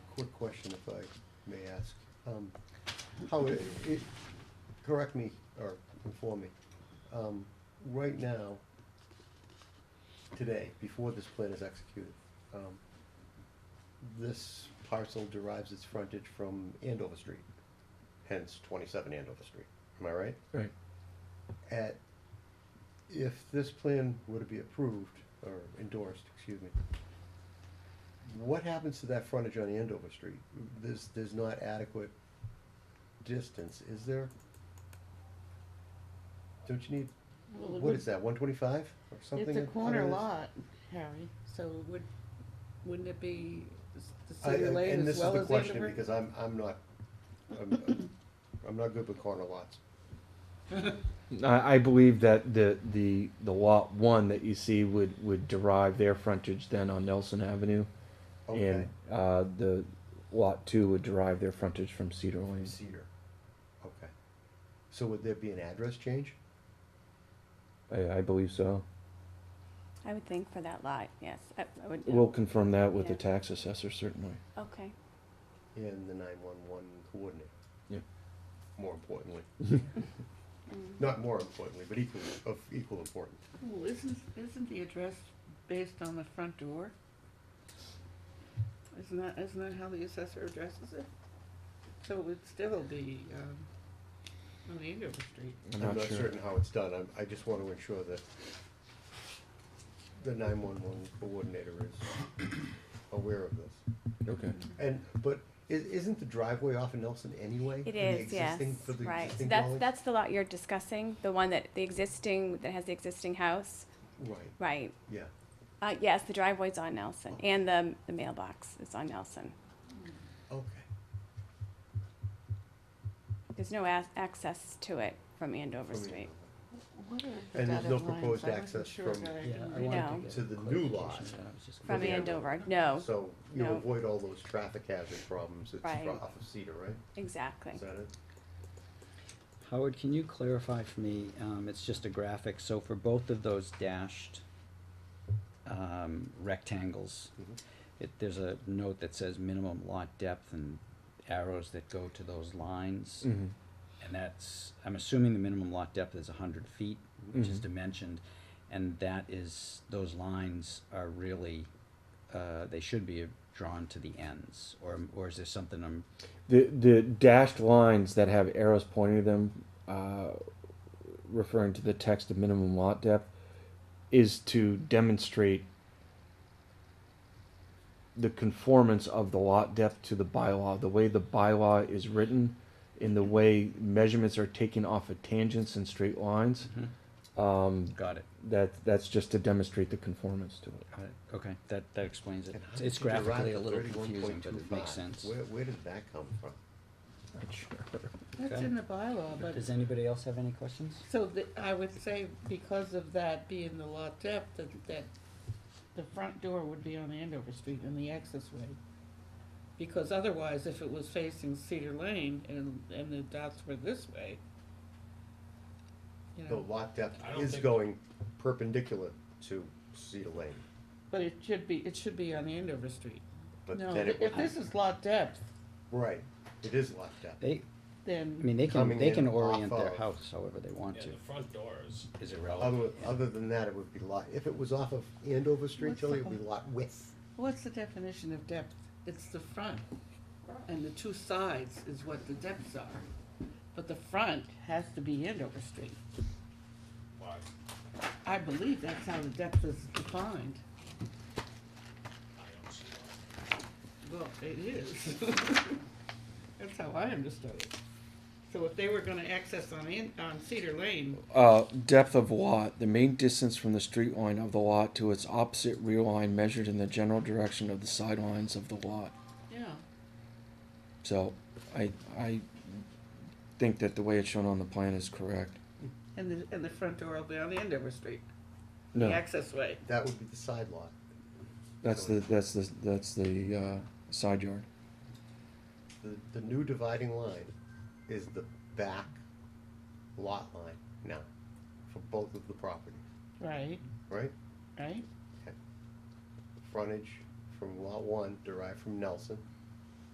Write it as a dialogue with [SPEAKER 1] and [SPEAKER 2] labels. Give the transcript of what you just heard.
[SPEAKER 1] question if I may ask. Um, How, it, it- correct me or inform me. Um, Right now, today, before this plan is executed, um, this parcel derives its frontage from Andover Street, hence twenty-seven Andover Street. Am I right?
[SPEAKER 2] Right.
[SPEAKER 1] at, if this plan were to be approved or endorsed, excuse me, what happens to that frontage on Andover Street? There's, there's not adequate distance, is there? Don't you need,
[SPEAKER 3] Well, it
[SPEAKER 1] what
[SPEAKER 3] would-
[SPEAKER 1] is that, one twenty-five or something?
[SPEAKER 3] It's a
[SPEAKER 1] I don't
[SPEAKER 3] corner
[SPEAKER 1] know.
[SPEAKER 3] lot, Harry, so would, wouldn't it be s- the
[SPEAKER 1] I- I-
[SPEAKER 3] city lane
[SPEAKER 1] And
[SPEAKER 3] as
[SPEAKER 1] this is
[SPEAKER 3] well
[SPEAKER 1] the
[SPEAKER 3] as
[SPEAKER 1] question,
[SPEAKER 3] Andover?
[SPEAKER 1] because I'm, I'm not, I'm, I'm not good with corner lots.
[SPEAKER 2] I, I believe that the, the, the lot one that you see would, would derive their frontage then on Nelson Avenue.
[SPEAKER 1] Okay,
[SPEAKER 2] And, uh, the lot two would derive their frontage from Cedar Lane.
[SPEAKER 1] Cedar, okay. So would there be an address change?
[SPEAKER 2] I, I believe so.
[SPEAKER 4] I would think for that lot, yes, I, I would,
[SPEAKER 2] We'll confirm that with the
[SPEAKER 4] Yeah.
[SPEAKER 2] tax assessor certainly.
[SPEAKER 4] okay.
[SPEAKER 1] in the nine-one-one coordinator.
[SPEAKER 2] Yeah.
[SPEAKER 1] More importantly,
[SPEAKER 4] Mm.
[SPEAKER 1] not more importantly, but equally, of equal importance.
[SPEAKER 3] Well, isn't, isn't the address based on the front door? Isn't that, isn't that how the assessor addresses it? So it would still be, um, on Andover Street.
[SPEAKER 2] I'm
[SPEAKER 1] I'm
[SPEAKER 2] not
[SPEAKER 1] not
[SPEAKER 2] sure.
[SPEAKER 1] certain how it's done, I'm, I just wanna ensure that the nine-one-one coordinator is aware of this.
[SPEAKER 2] Okay.
[SPEAKER 1] And, but i- isn't the driveway off of Nelson anyway?
[SPEAKER 4] It
[SPEAKER 1] for the
[SPEAKER 4] is, yes,
[SPEAKER 1] existing- for the
[SPEAKER 4] right, so
[SPEAKER 1] existing
[SPEAKER 4] that's,
[SPEAKER 1] dwelling?
[SPEAKER 4] that's the lot you're discussing, the one that, the existing, that has the existing house,
[SPEAKER 1] Right,
[SPEAKER 4] right?
[SPEAKER 1] yeah,
[SPEAKER 4] Uh, yes, the driveway's on Nelson, and the, the mailbox is on Nelson.
[SPEAKER 1] okay,
[SPEAKER 4] There's no ac- access to it from Andover
[SPEAKER 1] From
[SPEAKER 4] Street.
[SPEAKER 3] What are the
[SPEAKER 1] And there's no
[SPEAKER 3] dotted lines?
[SPEAKER 1] proposed
[SPEAKER 3] I wasn't
[SPEAKER 1] access
[SPEAKER 3] sure
[SPEAKER 1] from-
[SPEAKER 3] that I
[SPEAKER 5] Yeah,
[SPEAKER 3] can
[SPEAKER 5] I
[SPEAKER 3] read.
[SPEAKER 4] No.
[SPEAKER 5] wanted to get.
[SPEAKER 1] To the new lot.
[SPEAKER 5] clarification, but I was just
[SPEAKER 4] From
[SPEAKER 5] gonna-
[SPEAKER 4] Andover, no,
[SPEAKER 1] so you
[SPEAKER 4] No.
[SPEAKER 1] avoid all those traffic hazard problems, it's
[SPEAKER 4] Right.
[SPEAKER 1] off of Cedar, right?
[SPEAKER 4] exactly.
[SPEAKER 1] Is that it?
[SPEAKER 5] Howard, can you clarify for me, um, it's just a graphic, so for both of those dashed, um, rectangles,
[SPEAKER 1] Mhm.
[SPEAKER 5] it, there's a note that says minimum lot depth and arrows that go to those lines.
[SPEAKER 2] Mm-hmm.
[SPEAKER 5] And that's, I'm assuming the minimum lot depth is hundred feet, which is
[SPEAKER 2] Mhm.
[SPEAKER 5] dimensioned, and that is, those lines are really, uh, they should be drawn to the ends, or, or is there something I'm,
[SPEAKER 2] The, the dashed lines that have arrows pointing to them, uh, referring to the text of minimum lot depth, is to demonstrate the conformance of the lot depth to the bylaw. The way the bylaw is written, in the way measurements are taken off of tangents and straight lines, um,
[SPEAKER 5] got it,
[SPEAKER 2] that that's just to demonstrate the conformance to it.
[SPEAKER 5] got it, okay, that, that explains it.
[SPEAKER 1] And how
[SPEAKER 5] It's
[SPEAKER 1] did you derive
[SPEAKER 5] graphically
[SPEAKER 1] the
[SPEAKER 5] a little
[SPEAKER 1] 31.25?
[SPEAKER 5] confusing, but it makes sense.
[SPEAKER 1] Where, where did that come from?
[SPEAKER 2] Not sure.
[SPEAKER 3] That's
[SPEAKER 5] Okay.
[SPEAKER 3] in the bylaw, but
[SPEAKER 5] Does anybody else have any questions?
[SPEAKER 3] So the, I would say because of that being the lot depth, that, that the front door would be on Andover Street and the access way. Because otherwise, if it was facing Cedar Lane and, and the dots were this way, you
[SPEAKER 1] The
[SPEAKER 3] know,
[SPEAKER 1] lot depth
[SPEAKER 6] I don't
[SPEAKER 1] is
[SPEAKER 6] think-
[SPEAKER 1] going perpendicular to Cedar Lane,
[SPEAKER 3] but it should be, it should be on Andover Street.
[SPEAKER 1] but
[SPEAKER 3] No,
[SPEAKER 1] then it
[SPEAKER 3] if
[SPEAKER 1] would,
[SPEAKER 3] this is lot depth,
[SPEAKER 1] right, it is lot depth.
[SPEAKER 5] They, I
[SPEAKER 3] then,
[SPEAKER 5] mean, they
[SPEAKER 1] Coming
[SPEAKER 5] can, they
[SPEAKER 1] in
[SPEAKER 5] can
[SPEAKER 1] off
[SPEAKER 5] orient their
[SPEAKER 1] of-
[SPEAKER 5] house however they want
[SPEAKER 6] Yeah,
[SPEAKER 5] to,
[SPEAKER 6] the front doors.
[SPEAKER 5] is
[SPEAKER 1] Other,
[SPEAKER 5] irrelevant.
[SPEAKER 1] other than that, it would be lot, if it was off of Andover Street,
[SPEAKER 3] What's
[SPEAKER 1] Tilly,
[SPEAKER 3] the
[SPEAKER 1] it would be lot width.
[SPEAKER 3] what's the definition of depth? It's the front, and the two sides is what the depths are. But the front has to be Andover Street.
[SPEAKER 6] Why?
[SPEAKER 3] I believe that's how the depth is defined.
[SPEAKER 6] I don't see why.
[SPEAKER 3] Well, it is. That's how I understood it. So if they were gonna access on in, on Cedar Lane,
[SPEAKER 2] Uh, depth of lot, the main distance from the street line of the lot to its opposite rear line measured in the general direction of the sidelines of the lot.
[SPEAKER 3] yeah,
[SPEAKER 2] So I, I think that the way it's shown on the plan is correct.
[SPEAKER 3] and the, and the front door will be on Andover Street, the
[SPEAKER 2] No,
[SPEAKER 3] access way.
[SPEAKER 1] That would be the side lot.
[SPEAKER 2] that's the, that's the, that's the, uh, side yard.
[SPEAKER 1] The, the new dividing line is the back lot line now, for both of the properties,
[SPEAKER 3] Right,
[SPEAKER 1] right?
[SPEAKER 3] right?
[SPEAKER 1] Frontage from lot one derived from Nelson,